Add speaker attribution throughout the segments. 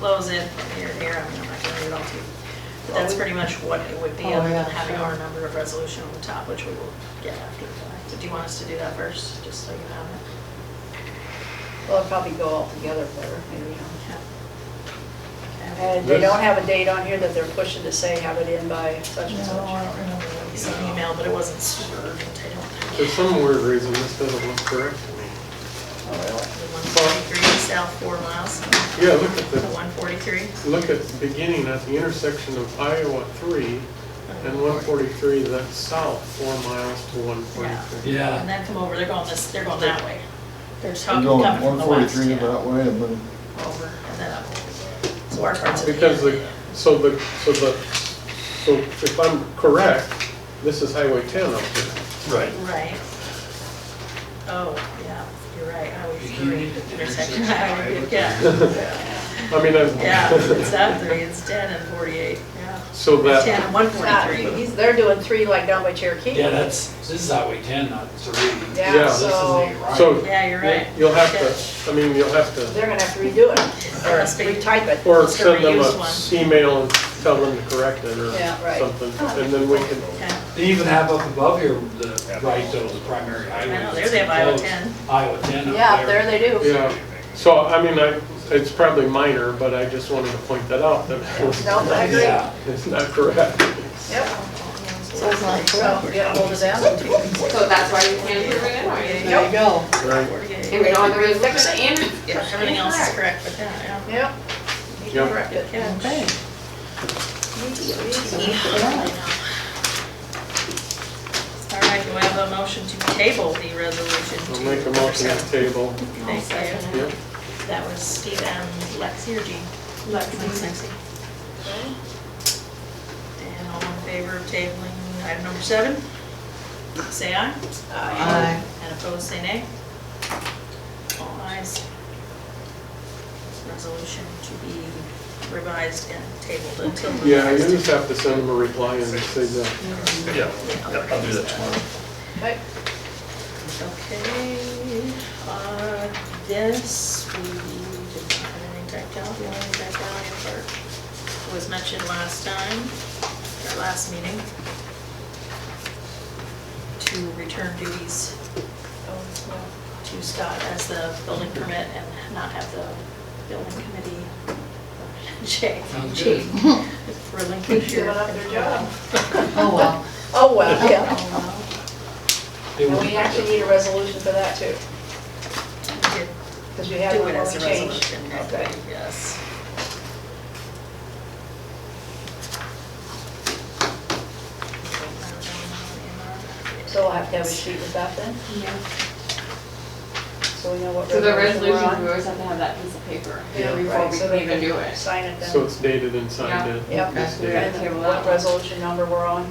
Speaker 1: close it from here to here, I mean, I'm not gonna read it all to you. But that's pretty much what it would be,
Speaker 2: Oh,
Speaker 1: other than
Speaker 2: yeah,
Speaker 1: having
Speaker 2: sure.
Speaker 1: our number of resolution on the top, which we will get after the fact. Do you want us to do that first, just so you know?
Speaker 2: Well, it'll probably go all together better, maybe. huh?
Speaker 1: Okay.
Speaker 2: And they
Speaker 3: This-
Speaker 2: don't have a date on here that they're pushing to say have it in by such and
Speaker 1: No, I
Speaker 2: such.
Speaker 1: don't remember what you sent an email, but it wasn't super urgent, I don't
Speaker 3: For
Speaker 1: think.
Speaker 3: some weird reason, this doesn't look correct to me.
Speaker 1: The 143 south four miles,
Speaker 3: Yeah, look at
Speaker 1: the
Speaker 3: the,
Speaker 1: 143.
Speaker 3: look at the beginning at the intersection of Iowa three and one forty-three, that's south, four miles to one forty-three.
Speaker 1: And
Speaker 4: Yeah,
Speaker 1: then come over, they're going this, they're going that way. They're
Speaker 5: We're
Speaker 1: talking,
Speaker 5: going
Speaker 1: coming from
Speaker 5: one
Speaker 1: the west,
Speaker 5: forty-three
Speaker 1: yeah,
Speaker 5: that way and then
Speaker 1: over and then up. So our parts of the.
Speaker 3: Because the, so the, so the, so if I'm correct, this is Highway ten up here.
Speaker 4: right.
Speaker 1: Right. Oh, yeah, you're right, Highway
Speaker 4: You
Speaker 1: three
Speaker 4: need to
Speaker 1: intersection,
Speaker 4: intersection
Speaker 1: highway,
Speaker 4: highway.
Speaker 1: yeah,
Speaker 3: I mean, I'm.
Speaker 1: yeah, it's not three, it's ten and forty-eight, yeah.
Speaker 3: So
Speaker 1: It's Ten
Speaker 3: that,
Speaker 1: and one
Speaker 2: It's not-
Speaker 1: forty-three.
Speaker 2: he's- They're doing three like down by Cherokee.
Speaker 4: Yeah, that's, this is Highway 10, not 3.
Speaker 2: Yeah,
Speaker 3: Yeah.
Speaker 4: This is
Speaker 2: so-
Speaker 4: the right.
Speaker 3: so.
Speaker 1: Yeah, you're right.
Speaker 3: You'll have to, I mean, you'll have to,
Speaker 2: They're gonna have to redo it, or
Speaker 1: Must be.
Speaker 2: retype it.
Speaker 3: or
Speaker 1: It's a
Speaker 3: send them
Speaker 1: reused
Speaker 3: a
Speaker 1: one.
Speaker 3: email and tell them to correct it or
Speaker 2: Yeah, right.
Speaker 3: something. And then we can,
Speaker 1: Okay.
Speaker 4: They even have up above here, the right, those primary highways.
Speaker 1: I know, there they have Iowa
Speaker 4: Those
Speaker 1: 10.
Speaker 4: Iowa 10 up there.
Speaker 2: Yeah, there they do.
Speaker 3: yeah. So, I mean, I, it's probably minor, but I just wanted to point that out, that
Speaker 2: No, I agree.
Speaker 4: Yeah,
Speaker 3: it's not correct.
Speaker 2: Yep.
Speaker 1: So it's like,
Speaker 2: So, yeah, hold it down.
Speaker 6: So that's why we can't approve it anyway.
Speaker 2: There you go.
Speaker 3: Right.
Speaker 6: And we
Speaker 1: forty-eight.
Speaker 6: don't have the resolution and it's.
Speaker 1: Yeah, everything else is correct, but that, yeah.
Speaker 2: Yep. You can
Speaker 3: Yep.
Speaker 2: correct it.
Speaker 1: Okay. All right, do I have a motion to table the resolution?
Speaker 3: I'll
Speaker 1: to
Speaker 3: make a motion
Speaker 1: accept?
Speaker 3: to table.
Speaker 1: Thank you.
Speaker 3: Yep.
Speaker 1: That was Steve and Lexi or Jean? Lexi. And all in favor of tabling item number seven? Say aye. Aye. And opposed, say nay. All ayes. Resolution to be revised and tabled until. the
Speaker 3: Yeah, you
Speaker 1: next-
Speaker 3: just have to send them a reply and say that.
Speaker 7: Yeah, I'll do that tomorrow.
Speaker 2: Okay.
Speaker 1: Okay, uh, this, we didn't have anything typed out, the only thing typed out in part was mentioned last time, our last meeting, to return duties to Scott as the building permit and not have the building committee, Jay,
Speaker 4: Sounds
Speaker 1: Jay,
Speaker 4: good.
Speaker 1: relinquish your.
Speaker 2: Giving up their job.
Speaker 8: Oh, well.
Speaker 2: Oh, well, yeah.
Speaker 4: They
Speaker 2: And
Speaker 4: were-
Speaker 2: we actually need a resolution for that too,
Speaker 1: We did
Speaker 2: because we had
Speaker 1: Do
Speaker 2: one
Speaker 1: it
Speaker 2: where
Speaker 1: as
Speaker 2: we
Speaker 1: a
Speaker 2: changed.
Speaker 1: resolution,
Speaker 2: Okay.
Speaker 1: yes.
Speaker 2: So we'll have to have a sheet with that then, so we know what
Speaker 6: So the
Speaker 2: resolution we're
Speaker 6: resolution, we
Speaker 2: on.
Speaker 6: always have to have that piece of paper
Speaker 2: Yeah,
Speaker 6: before
Speaker 2: right,
Speaker 6: we
Speaker 2: so
Speaker 6: can
Speaker 2: they
Speaker 6: even
Speaker 2: can
Speaker 6: do it.
Speaker 2: Sign it
Speaker 3: So
Speaker 2: then.
Speaker 3: it's dated and signed in.
Speaker 2: Yep.
Speaker 3: It's
Speaker 6: We're
Speaker 3: dated.
Speaker 6: gonna table that
Speaker 2: What
Speaker 6: one.
Speaker 2: resolution number we're on.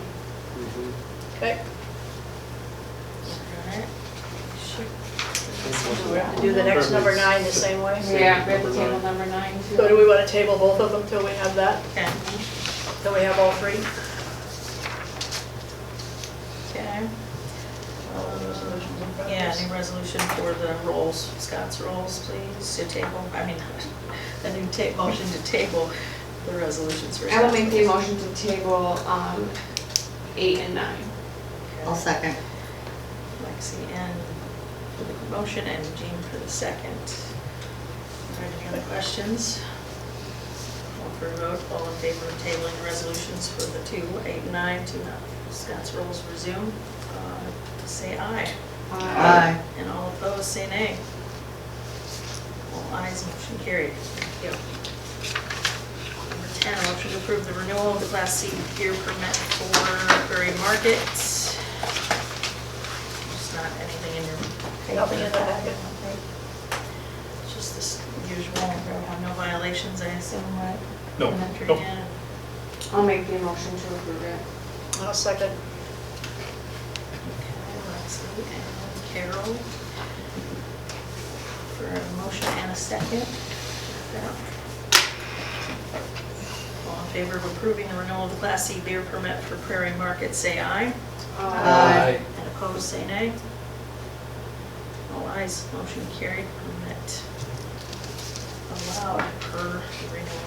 Speaker 3: Mhm.
Speaker 2: Okay. Do we have to do the next number nine the same way?
Speaker 6: Yeah, we have to table number nine too.
Speaker 2: So do we want to table both of them till we have that,
Speaker 1: Okay,
Speaker 2: till we have all three?
Speaker 1: okay. Yeah, new resolution for the rolls, Scott's rolls, please, to table, I mean, a new ta, motion to table the resolutions for.
Speaker 6: I will make
Speaker 1: Scott's
Speaker 6: the
Speaker 1: rolls.
Speaker 6: motion to table, um, eight and nine.
Speaker 8: I'll second.
Speaker 1: Lexi and for the motion and Jean for the second. Are there any other questions? All for a vote, all in favor of tabling resolutions for the two, eight, nine, to not, Scott's rules resume, uh, say aye.
Speaker 6: Uh,
Speaker 8: Aye.
Speaker 1: And all opposed, say nay. All ayes, motion carried. Thank you. Number 10, a motion to approve the renewal of the Class C beer permit for Prairie Market. There's not anything in your...
Speaker 2: Nothing in the packet.
Speaker 1: It's Just this usual, no violations, I assume, right?
Speaker 7: No,
Speaker 1: Elementary,
Speaker 7: no.
Speaker 1: yeah.
Speaker 6: I'll make the motion to approve it.
Speaker 2: I'll second.
Speaker 1: Lexi and Carol for a motion and a second. All in favor of approving the renewal of the Class C beer permit for Prairie Market, say aye.
Speaker 6: Uh,
Speaker 4: Aye.
Speaker 1: And opposed, say nay. All ayes, motion carried, permit allowed per renewal.